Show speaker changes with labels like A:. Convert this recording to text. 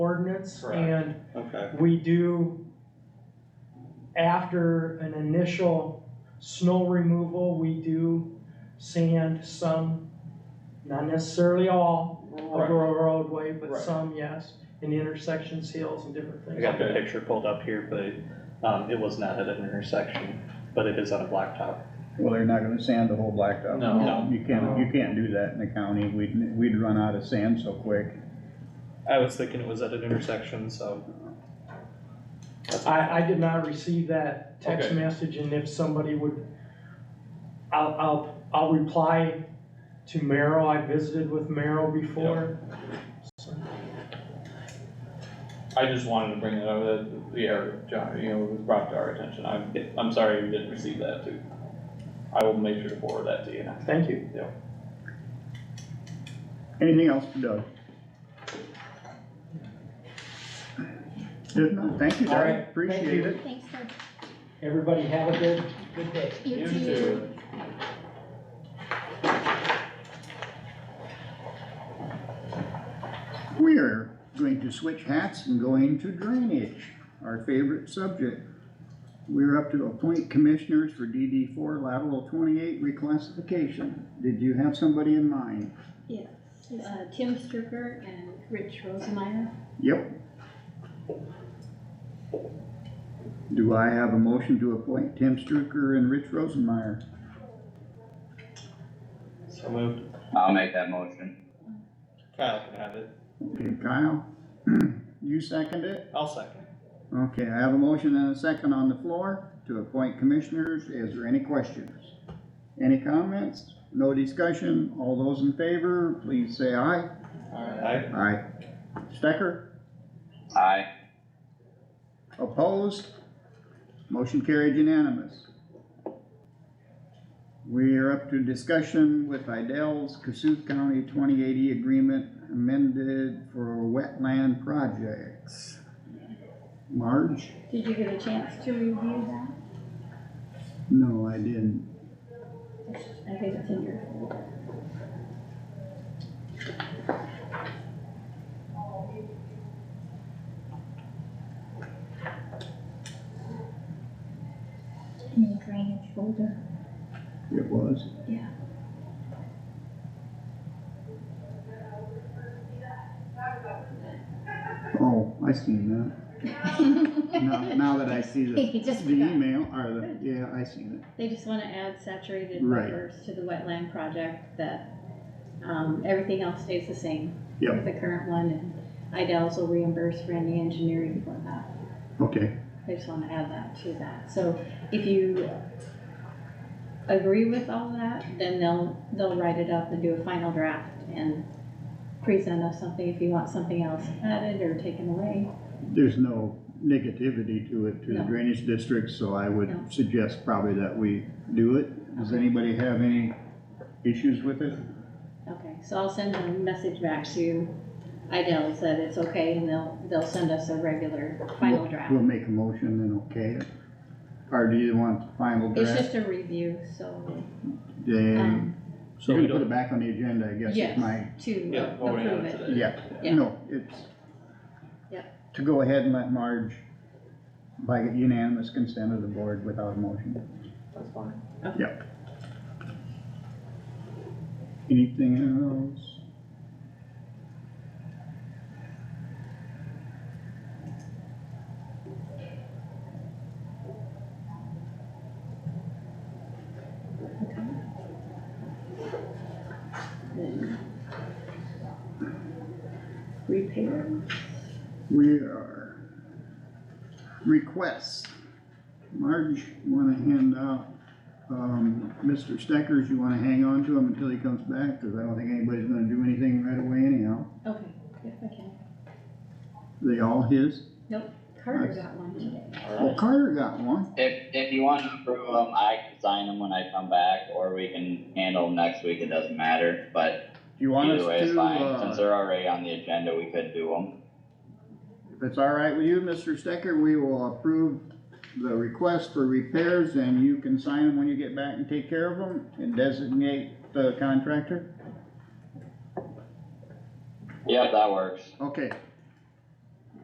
A: insurance
B: Correct.
A: and
C: Okay,
A: we do, after an initial snow removal, we do sand some, not necessarily all of
C: right,
A: our roadway, but
C: Right.
A: some, yes, in intersections, hills and different
B: I
A: things.
B: got the
C: Okay.
B: picture pulled up here, but, um, it was not at an intersection, but it is on a blacktop.
D: Well, they're not gonna sand the whole blacktop.
B: No. No.
D: You can't, you can't do that in the county, we'd, we'd run out of sand so quick.
B: I was thinking it was at an intersection, so.
A: I, I did not receive that text
C: Okay.
A: message, and if somebody would, I'll, I'll, I'll reply to Merrill, I visited with Merrill before. So,
C: I just wanted to bring that up, that the error, John, you know, was brought to our attention, I'm, I'm sorry you didn't receive that too. I will make sure to forward that to you now.
A: Thank you.
D: Anything else for Doug? If not, thank you,
A: All
D: Doug,
A: right, thank
D: appreciate
A: you.
D: it.
E: Thanks, Doug.
A: Everybody have a good, good day.
E: You too.
C: too.
D: We're going to switch hats and go into drainage, our favorite subject. We're up to appoint commissioners for DD four lateral twenty-eight reclassification. Did you have somebody in mind?
E: Yes, uh, Tim Strucker and Rich Rosemeyer.
D: Yep. Do I have a motion to appoint Tim Strucker and Rich Rosenmeyer?
B: So moved.
F: I'll make that motion.
B: Kyle can have it.
D: Okay, Kyle, you second it?
B: I'll second.
D: Okay, I have a motion and a second on the floor to appoint commissioners. Is there any questions? Any comments? No discussion? All those in favor, please say aye.
B: Alright.
D: Aye. Stecker,
F: Aye.
D: opposed? Motion carried unanimous. We are up to discussion with Idell's Cassuth County twenty eighty agreement amended for wetland projects. Marge?
E: Did you get a chance to review that?
D: No, I didn't.
E: I think it's in your folder. In the drainage folder.
D: It was?
E: Yeah.
D: Oh, I see that. Now, now that I see the,
E: He just
D: the
E: forgot.
D: email, or the, yeah, I see that.
E: They just wanna add saturated
D: Right.
E: buffers to the wetland project that, um, everything else stays the same.
D: Yep.
E: with The current one, and Idells will reimburse for any engineering for that.
D: Okay,
E: I just wanna add that to that, so if you agree with all that, then they'll, they'll write it up and do a final draft and present us something if you want something else added or taken away.
D: there's no negativity to it, to the
E: No.
D: drainage district, so I
E: No.
D: would suggest probably that we do it. Does anybody have any issues with it?
E: Okay, so I'll send a message back to Idell that it's okay and they'll, they'll send us a regular final
D: We'll-
E: draft.
D: We'll make a motion and okay it. Or do you want the final
E: It's
D: draft?
E: just a review, so,
D: They,
E: um,
D: so we put it back on the agenda, I guess, is
E: yes,
D: my
E: to
C: Yeah, voting on
E: approve
C: it
E: it.
C: today.
D: Yeah,
E: Yeah.
D: no, it's.
E: Yeah.
D: To go ahead and let Marge, by unanimous consent of the board without a motion.
C: That's fine.
D: Anything else?
E: Then Repair.
D: We are. Requests. Marge, you wanna hand out, um, Mr. Steckers, you wanna hang on to him until he comes back, cause I don't think anybody's gonna do anything right away anyhow.
E: Okay, if I can.
D: They all his?
E: Carter
D: Nice.
E: got one today.
D: Well, Carter got one.
F: If, if you want to approve them, I can sign them when I come back, or we can handle 'em next week, it doesn't matter, but
D: Do you want us
F: either way is
D: to,
F: fine. Since
D: uh,
F: they're already on the agenda, we could do them.
D: if it's all right with you, Mr. Stecker, we will approve the request for repairs and you can sign them when you get back and take care of them and designate the contractor?
F: Yep, that works.
D: Okay,